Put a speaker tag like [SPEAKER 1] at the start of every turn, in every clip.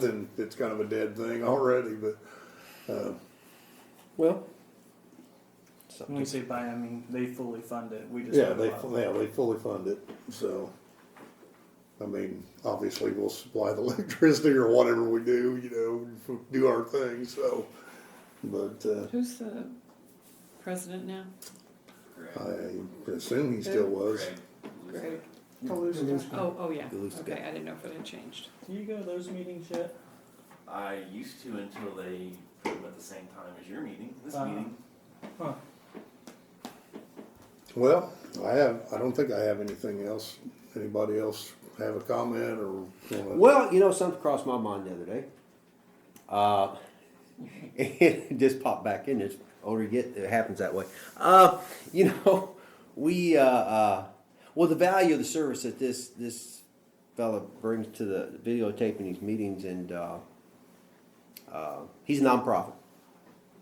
[SPEAKER 1] then it's kind of a dead thing already. But well,
[SPEAKER 2] When we say buy, I mean they fully fund it. We just
[SPEAKER 1] yeah,
[SPEAKER 2] have a
[SPEAKER 1] they
[SPEAKER 2] lot.
[SPEAKER 1] yeah they fully fund it. So I mean, obviously we'll supply the electricity or whatever we do, you know, do our thing. So, but uh,
[SPEAKER 3] Who's the president now?
[SPEAKER 1] I assume he still was.
[SPEAKER 3] Greg.
[SPEAKER 4] Galuska.
[SPEAKER 3] Oh, oh yeah.
[SPEAKER 4] Galuska.
[SPEAKER 3] Okay, I didn't know if it had changed.
[SPEAKER 2] Mm-hmm. Do you go to those meetings yet?
[SPEAKER 5] I used to until they put them at the same time as your meeting, this
[SPEAKER 2] Uh-huh.
[SPEAKER 5] meeting.
[SPEAKER 2] Huh.
[SPEAKER 1] Well, I have. I don't think I have anything else. Anybody else have a comment or? wanna-
[SPEAKER 4] Well, you know, something crossed my mind the other day. Uh, it just popped back in. It's older you get, it happens that way. Uh, you know, we uh, uh, well, the value of the service that this this fella brings to the videotaping these meetings, and uh, uh, he's a nonprofit.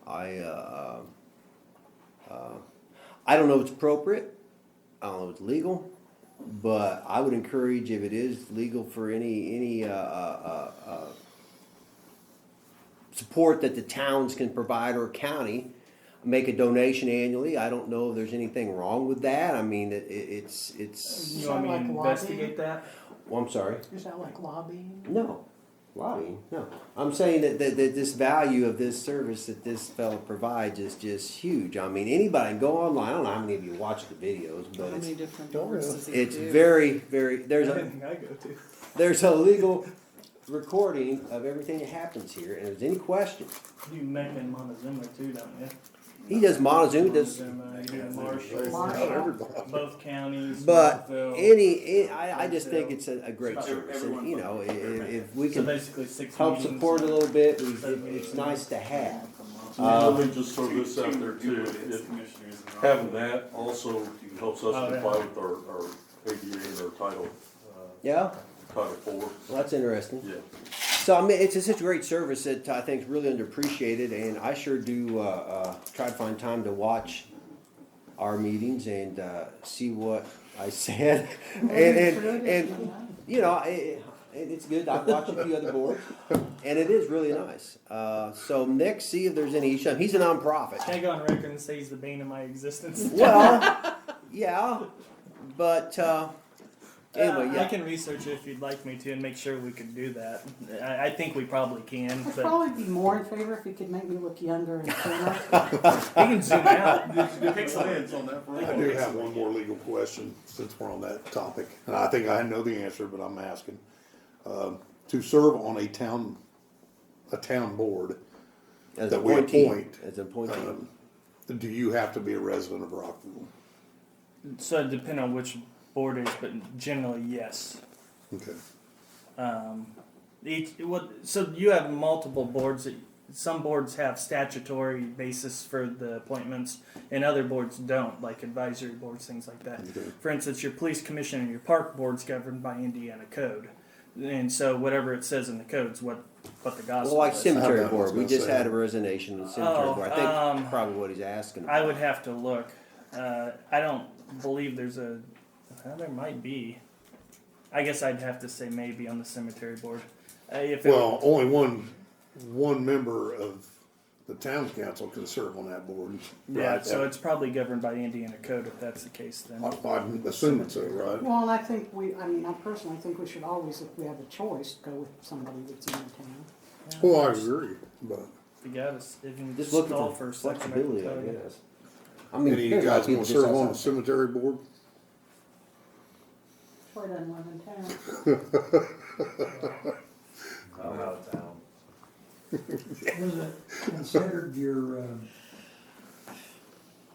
[SPEAKER 4] I uh, uh, I don't know if it's appropriate. I don't know if it's legal. But I would encourage if it is legal for any any uh, uh, uh, uh, support that the towns can provide or county make a donation annually. I don't know if there's anything wrong with that. I mean, it, it, it's it's.
[SPEAKER 2] You want me to
[SPEAKER 6] Sound like
[SPEAKER 2] investigate that?
[SPEAKER 4] Well, I'm sorry.
[SPEAKER 6] Is that like lobbying?
[SPEAKER 4] No, lobbying. No, I'm saying that, that that this value of this service that this fellow provides is just huge. I mean, anybody can go online. I don't know how many of you watch the videos,
[SPEAKER 3] How
[SPEAKER 4] but
[SPEAKER 3] many
[SPEAKER 4] it's
[SPEAKER 3] different
[SPEAKER 1] Don't
[SPEAKER 3] boards
[SPEAKER 1] really.
[SPEAKER 3] does he
[SPEAKER 4] it's
[SPEAKER 3] do?
[SPEAKER 4] very very. There's a
[SPEAKER 2] Everything I go to.
[SPEAKER 4] There's a legal recording of everything that happens here, and if there's any question,
[SPEAKER 2] You make in Montezuma too, don't you?
[SPEAKER 4] he does Montezuma, does,
[SPEAKER 2] Montezuma, you
[SPEAKER 5] Yeah,
[SPEAKER 2] do
[SPEAKER 5] there's-
[SPEAKER 2] Marshall,
[SPEAKER 1] Not everybody.
[SPEAKER 2] both counties.
[SPEAKER 4] but
[SPEAKER 2] Montville.
[SPEAKER 4] any, I, I just think it's a, a great service, and, you know, i- i- if we
[SPEAKER 2] So
[SPEAKER 4] can
[SPEAKER 2] basically six
[SPEAKER 4] help
[SPEAKER 2] meetings.
[SPEAKER 4] support a little bit, we- it- it's nice to have.
[SPEAKER 7] Let
[SPEAKER 4] Uh,
[SPEAKER 7] me just throw this out there
[SPEAKER 5] Two- two
[SPEAKER 7] too,
[SPEAKER 5] duplicates,
[SPEAKER 7] If
[SPEAKER 5] commissioners and all.
[SPEAKER 7] having that also helps
[SPEAKER 2] Oh,
[SPEAKER 7] us
[SPEAKER 2] yeah.
[SPEAKER 7] comply with our, our ADA and our title, uh,
[SPEAKER 4] yeah,
[SPEAKER 7] title four,
[SPEAKER 4] well, that's interesting.
[SPEAKER 7] yeah.
[SPEAKER 4] So I mean, it's such a great service that I think is really underappreciated, and I sure do uh, uh, try to find time to watch our meetings and uh, see what I said, and and, and you know, it, it, it's good. I've watched a few other boards, and it is really nice. Uh, so Nick, see if there's any issue. He's a nonprofit.
[SPEAKER 2] Can I go on record and say he's the bane of my existence?
[SPEAKER 4] Well, yeah, but uh,
[SPEAKER 2] Uh,
[SPEAKER 4] anyway,
[SPEAKER 2] I
[SPEAKER 4] yeah.
[SPEAKER 2] can research it if you'd like me to and make sure we can do that. I, I think we probably can,
[SPEAKER 6] I'd
[SPEAKER 2] but
[SPEAKER 6] probably be more in favor if you could make me look younger and thinner.
[SPEAKER 2] we can zoom out.
[SPEAKER 5] The pixel ends on that for all.
[SPEAKER 1] I do have one more legal question since we're on that topic, and I think I know the answer, but I'm asking. Um, To serve on a town, a town board,
[SPEAKER 4] As
[SPEAKER 1] that
[SPEAKER 4] a
[SPEAKER 1] we
[SPEAKER 4] appointee,
[SPEAKER 1] appoint,
[SPEAKER 4] as an appointee.
[SPEAKER 1] um, do you have to be a resident of Rockville?
[SPEAKER 2] So it depends on which board it is, but generally yes.
[SPEAKER 1] Okay.
[SPEAKER 2] Um, each what? So you have multiple boards. That, some boards have statutory basis for the appointments, and other boards don't, like advisory boards, things like that.
[SPEAKER 1] Okay.
[SPEAKER 2] For instance, your police commission and your park board's governed by Indiana code, and so whatever it says in the code's what what the
[SPEAKER 4] Well,
[SPEAKER 2] gospel
[SPEAKER 4] like
[SPEAKER 2] is.
[SPEAKER 1] I
[SPEAKER 4] cemetery
[SPEAKER 1] was
[SPEAKER 4] board, we
[SPEAKER 1] gonna
[SPEAKER 4] just
[SPEAKER 1] say.
[SPEAKER 4] had a resignation in the cemetery
[SPEAKER 2] Oh,
[SPEAKER 4] board. I think
[SPEAKER 2] um,
[SPEAKER 4] probably what he's asking.
[SPEAKER 2] I would have to look. Uh, I don't believe there's a. Well, there might be. I guess I'd have to say maybe on the cemetery board. Uh, if it-
[SPEAKER 1] Well, only one, one member of the town council can serve on that board.
[SPEAKER 2] yeah,
[SPEAKER 1] right?
[SPEAKER 2] so it's probably governed by Indiana code if that's the case. Then
[SPEAKER 1] I- I'm assuming so, right?
[SPEAKER 6] Well, and I think we, I mean, I personally think we should always, if we have a choice, go with somebody that's in the town.
[SPEAKER 1] Well, I agree, but.
[SPEAKER 2] you got us. If you
[SPEAKER 4] Just looking
[SPEAKER 2] stall
[SPEAKER 4] for
[SPEAKER 2] a second, I can
[SPEAKER 4] flexibility,
[SPEAKER 2] tell
[SPEAKER 4] I
[SPEAKER 2] you.
[SPEAKER 4] guess. I mean,
[SPEAKER 1] Any of you
[SPEAKER 4] there's a lot of
[SPEAKER 1] guys
[SPEAKER 4] people
[SPEAKER 1] want to
[SPEAKER 4] just
[SPEAKER 1] serve on the
[SPEAKER 4] outside.
[SPEAKER 1] cemetery board?
[SPEAKER 6] Troy doesn't live in town.
[SPEAKER 5] I'm out of town.
[SPEAKER 8] Was it considered your, um,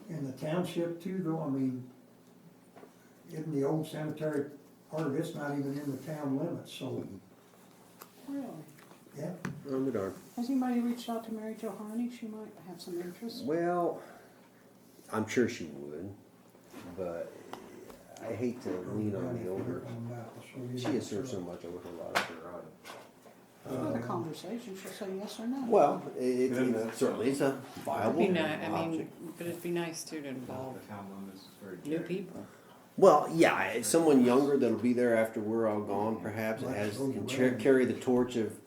[SPEAKER 8] in the township too, though, I mean, in the old cemetery, part of it's not even in the town limits, so,
[SPEAKER 6] Really?
[SPEAKER 8] yeah.
[SPEAKER 4] Oh, my darn.
[SPEAKER 6] Has anybody reached out to Mary Jo Harney? She might have some interest.
[SPEAKER 4] Well, I'm sure she would, but I hate to lean on the older. She has served uh, so much over her life.
[SPEAKER 6] She's got a conversation, she'll say yes or no.
[SPEAKER 4] Well, it, it, it certainly is a
[SPEAKER 3] It'd
[SPEAKER 4] viable
[SPEAKER 3] be ni- I mean,
[SPEAKER 4] object.
[SPEAKER 3] but it'd be nice too to involve new people.
[SPEAKER 4] Well, yeah, it's someone younger that'll be there after we're all gone, perhaps, that has can cha- carry the torch of